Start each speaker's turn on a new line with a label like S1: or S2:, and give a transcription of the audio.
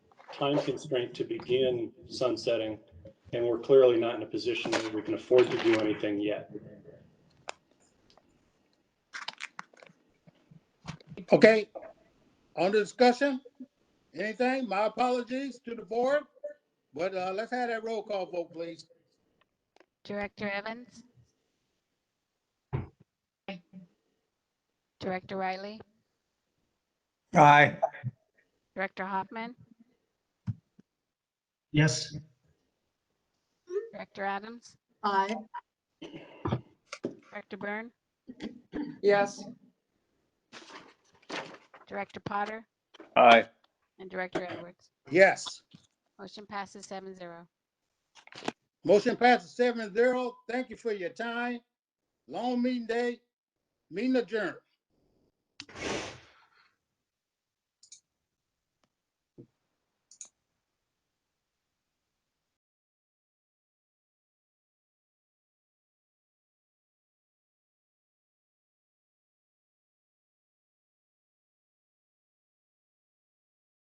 S1: time constraint to begin sunsetting, and we're clearly not in a position where we can afford to do anything yet.
S2: Okay, on the discussion, anything? My apologies to the board, but uh, let's have that roll call vote, please.
S3: Director Evans? Director Riley?
S4: Aye.
S3: Director Hoffman?
S4: Yes.
S3: Director Adams?
S5: Aye.
S3: Director Byrne?
S5: Yes.
S3: Director Potter?
S4: Aye.
S3: And Director Edwards?
S2: Yes,
S3: Motion passes seven zero.
S2: motion passes seven zero. Thank you for your time. Long meeting day, meeting adjourned.